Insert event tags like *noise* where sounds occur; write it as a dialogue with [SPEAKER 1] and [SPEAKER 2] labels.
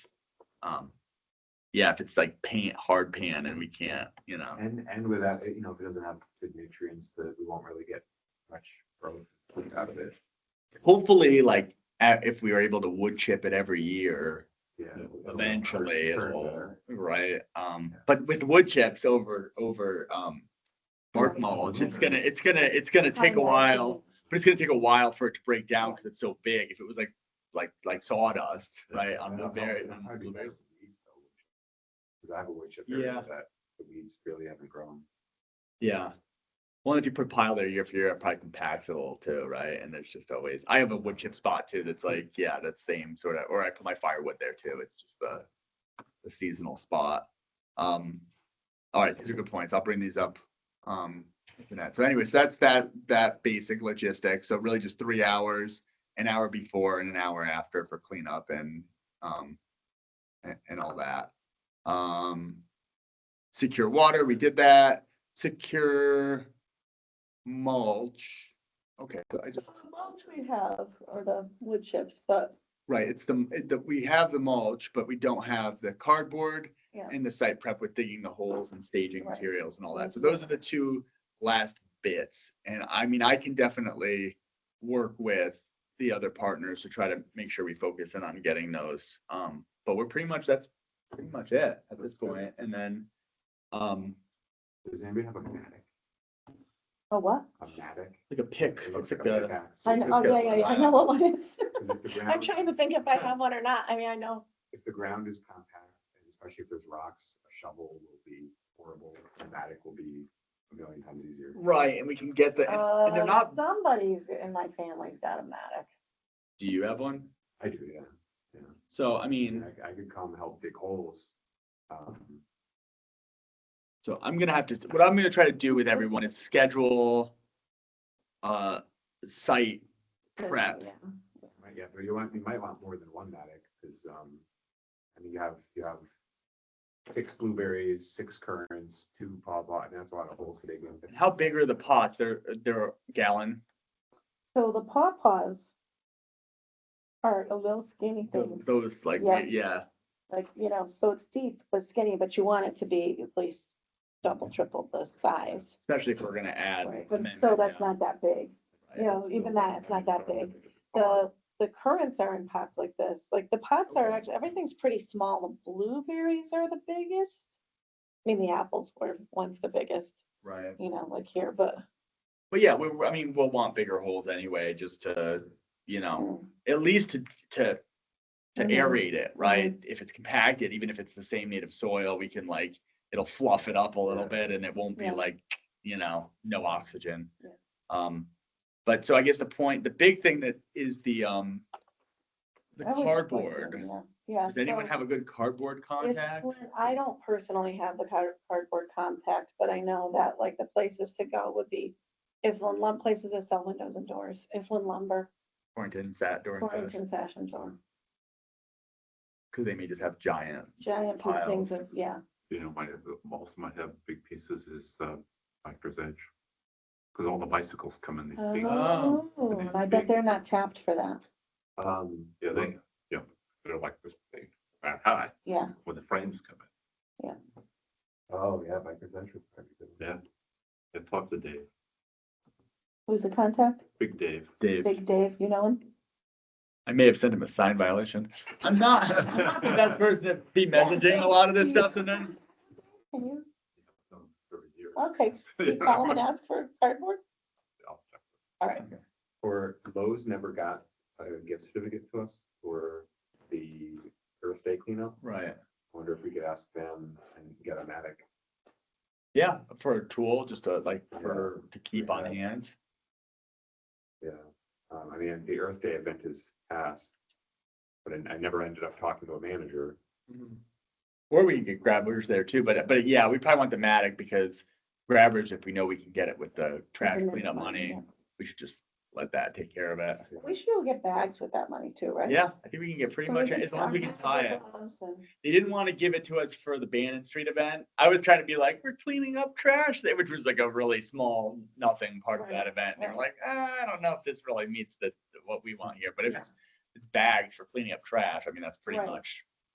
[SPEAKER 1] um, yeah, if it's like paint, hard pan and we can't, you know,
[SPEAKER 2] And, and without, it, you know, if it doesn't have good nutrients, that we won't really get much growth out of it.
[SPEAKER 1] hopefully like a- if we were able to wood chip it every year,
[SPEAKER 2] Yeah.
[SPEAKER 1] eventually
[SPEAKER 2] Turn
[SPEAKER 1] it'll,
[SPEAKER 2] better.
[SPEAKER 1] right? Um,
[SPEAKER 2] Yeah.
[SPEAKER 1] but with wood chips over, over, um, bark mulch, it's gonna, it's gonna, it's gonna take a while, but it's gonna take a while for it to break down because it's so big. If it was like, like, like sawdust, right?
[SPEAKER 2] I
[SPEAKER 1] On
[SPEAKER 2] don't know,
[SPEAKER 1] blueberry,
[SPEAKER 2] it
[SPEAKER 1] on
[SPEAKER 2] might be better
[SPEAKER 1] blueberries.
[SPEAKER 2] for weeds, though. Cause I have a wood chip area
[SPEAKER 1] Yeah.
[SPEAKER 2] that the weeds really haven't grown.
[SPEAKER 1] Yeah. Well, if you put pile there year for year, it probably compacts a little too, right? And there's just always, I have a wood chip spot too, that's like, yeah, that same sort of, or I put my firewood there too. It's just the, the seasonal spot. Um, all right, these are good points. I'll bring these up. Um, for that. so anyways, that's that, that basic logistics. So really just three hours, an hour before and an hour after for cleanup and, um, and, and all that. Um, secure water, we did that secure mulch. Okay, so I
[SPEAKER 3] The
[SPEAKER 1] just,
[SPEAKER 3] mulch we have are the wood chips, but
[SPEAKER 1] right, it's the, it- the, we have the mulch, but we don't have the cardboard
[SPEAKER 3] Yeah.
[SPEAKER 1] and the site prep with digging the holes and staging
[SPEAKER 3] Right. Mm-hmm.
[SPEAKER 1] materials and all that. So those are the two last bits. And I mean, I can definitely work with the other partners to try to make sure we focus in on getting those. Um, but we're pretty much, that's pretty much it at this point. And then, um,
[SPEAKER 2] Does anybody have a matic?
[SPEAKER 3] oh, what?
[SPEAKER 2] A matic?
[SPEAKER 1] like a pick,
[SPEAKER 2] It
[SPEAKER 1] it's
[SPEAKER 2] looks
[SPEAKER 1] like
[SPEAKER 2] like a
[SPEAKER 1] a,
[SPEAKER 2] pickaxe.
[SPEAKER 3] I know, oh, yeah, yeah, yeah, I know what one is.
[SPEAKER 2] 'Cause if the
[SPEAKER 3] *laughs* I'm
[SPEAKER 2] ground-
[SPEAKER 3] trying to think if I have one or not. I mean, I know,
[SPEAKER 2] If the ground is compact, and especially if there's rocks, a shovel will be horrible, a matic will be a million times easier.
[SPEAKER 1] right, and we can get the, and- and they're
[SPEAKER 3] uh,
[SPEAKER 1] not
[SPEAKER 3] somebody's in my family's got a matic.
[SPEAKER 1] Do you have one?
[SPEAKER 2] I do, yeah, yeah.
[SPEAKER 1] So, I mean,
[SPEAKER 2] And I, I could come help dig holes. Um,
[SPEAKER 1] so I'm gonna have to, what I'm gonna try to do with everyone is schedule uh, site prep.
[SPEAKER 3] Yeah.
[SPEAKER 2] Right, yeah, but you want, you might want more than one matic, because, um, I mean, you have, you have six blueberries, six currants, two pawpaw, and that's a lot of holes to dig in.
[SPEAKER 1] How big are the pots? They're, they're a gallon.
[SPEAKER 3] So the pawpaws are a little skinny thing,
[SPEAKER 1] Those like,
[SPEAKER 3] Mm-hmm. Yeah.
[SPEAKER 1] yeah,
[SPEAKER 3] like, you know, so it's deep but skinny, but you want it to be at least double, triple the size.
[SPEAKER 1] especially if we're gonna add.
[SPEAKER 3] Right, but
[SPEAKER 1] amendment,
[SPEAKER 3] still, that's
[SPEAKER 1] yeah.
[SPEAKER 3] not that big. you know,
[SPEAKER 1] Right.
[SPEAKER 3] even that, it's not that big. The, the currants are in pots like this, like the pots are
[SPEAKER 1] Okay.
[SPEAKER 3] actually, everything's pretty small, the blueberries are the biggest. I mean, the apples were once the biggest,
[SPEAKER 1] Right,
[SPEAKER 3] you know, like here, but.
[SPEAKER 1] but yeah, we, we- I mean, we'll want bigger holes anyway, just to, you know, at least to, to to
[SPEAKER 3] Mhm.
[SPEAKER 1] aerate it, right? If it's compacted, even if it's the same native soil, we can like, it'll fluff it up a little bit and it won't be
[SPEAKER 3] Yeah.
[SPEAKER 1] like, you know, no oxygen.
[SPEAKER 3] Yeah.
[SPEAKER 1] Um, but so I guess the point, the big thing that is the, um, the
[SPEAKER 3] that was the question,
[SPEAKER 1] cardboard.
[SPEAKER 3] yeah, Yeah.
[SPEAKER 1] Does anyone
[SPEAKER 3] so
[SPEAKER 1] have a good cardboard
[SPEAKER 3] if-
[SPEAKER 1] contact?
[SPEAKER 3] when- I don't personally have the card- cardboard contact, but I know that like the places to go would be Iflin Lumber, places that sell windows and doors, Iflin Lumber,
[SPEAKER 1] Torrington sat during session,
[SPEAKER 3] Torrington Fashion Door,
[SPEAKER 1] because they may just have giant,
[SPEAKER 3] giant pink
[SPEAKER 1] Piles.
[SPEAKER 3] things of, yeah.
[SPEAKER 4] you know, might have, also might have big pieces is uh, Factor's Edge. Because all the bicycles come in these big,
[SPEAKER 3] Oh,
[SPEAKER 4] these
[SPEAKER 3] I bet
[SPEAKER 4] big-
[SPEAKER 3] they're not tapped for that.
[SPEAKER 2] Um,
[SPEAKER 4] yeah, they, yeah, they're like this big, about high,
[SPEAKER 3] Yeah,
[SPEAKER 4] when the frames come in.
[SPEAKER 2] oh, yeah, Bikers Edge would probably be good.
[SPEAKER 4] Yeah. I talked to Dave,
[SPEAKER 3] who's the contact?
[SPEAKER 4] Big Dave.
[SPEAKER 1] Dave,
[SPEAKER 3] Big Dave, you know him?
[SPEAKER 1] I may have sent him a sign violation. I'm not, *laughs* I'm not the best person to
[SPEAKER 3] *laughs*
[SPEAKER 1] be messaging a lot of this stuff sometimes.
[SPEAKER 3] Can you,
[SPEAKER 4] um, for years. *laughs*
[SPEAKER 1] *laughs*
[SPEAKER 3] okay, you call him and ask for cardboard?
[SPEAKER 4] I'll check.
[SPEAKER 3] All right,
[SPEAKER 2] Or Lowe's never got a gift certificate to us for the Earth Day cleanup.
[SPEAKER 1] Right.
[SPEAKER 2] I wonder if we could ask them and get a matic.
[SPEAKER 1] Yeah, for a tool, just to like,
[SPEAKER 2] Yeah.
[SPEAKER 1] for, to keep on
[SPEAKER 2] Yeah.
[SPEAKER 1] hand.
[SPEAKER 2] Yeah, um, I mean, the Earth Day event is past, but I, I never ended up talking to a manager. Mm-hmm.
[SPEAKER 1] Or we can get grabbers there too, but, but yeah, we probably want the Matic because grabbers, if we know we can get it with the trash
[SPEAKER 3] next
[SPEAKER 1] cleanup
[SPEAKER 3] one,
[SPEAKER 1] money,
[SPEAKER 3] yeah.
[SPEAKER 1] we should just let that take care of it.
[SPEAKER 3] we should go get bags with that money too, right?
[SPEAKER 1] Yeah, I think we can get pretty
[SPEAKER 3] So we
[SPEAKER 1] much,
[SPEAKER 3] can
[SPEAKER 1] as long as we
[SPEAKER 3] start
[SPEAKER 1] can tie it.
[SPEAKER 3] with those and-
[SPEAKER 1] They didn't want to give it to us for the Bannon Street event. I was trying to be like, we're cleaning up trash, that- which was like a really small, nothing part of
[SPEAKER 3] Right,
[SPEAKER 1] that event. And They were
[SPEAKER 3] right.
[SPEAKER 1] like, "Ah, I don't know if this really meets the, what we want here, but if
[SPEAKER 3] Yeah.
[SPEAKER 1] it's, it's bags for cleaning up trash, I mean, that's pretty
[SPEAKER 3] Right.
[SPEAKER 1] much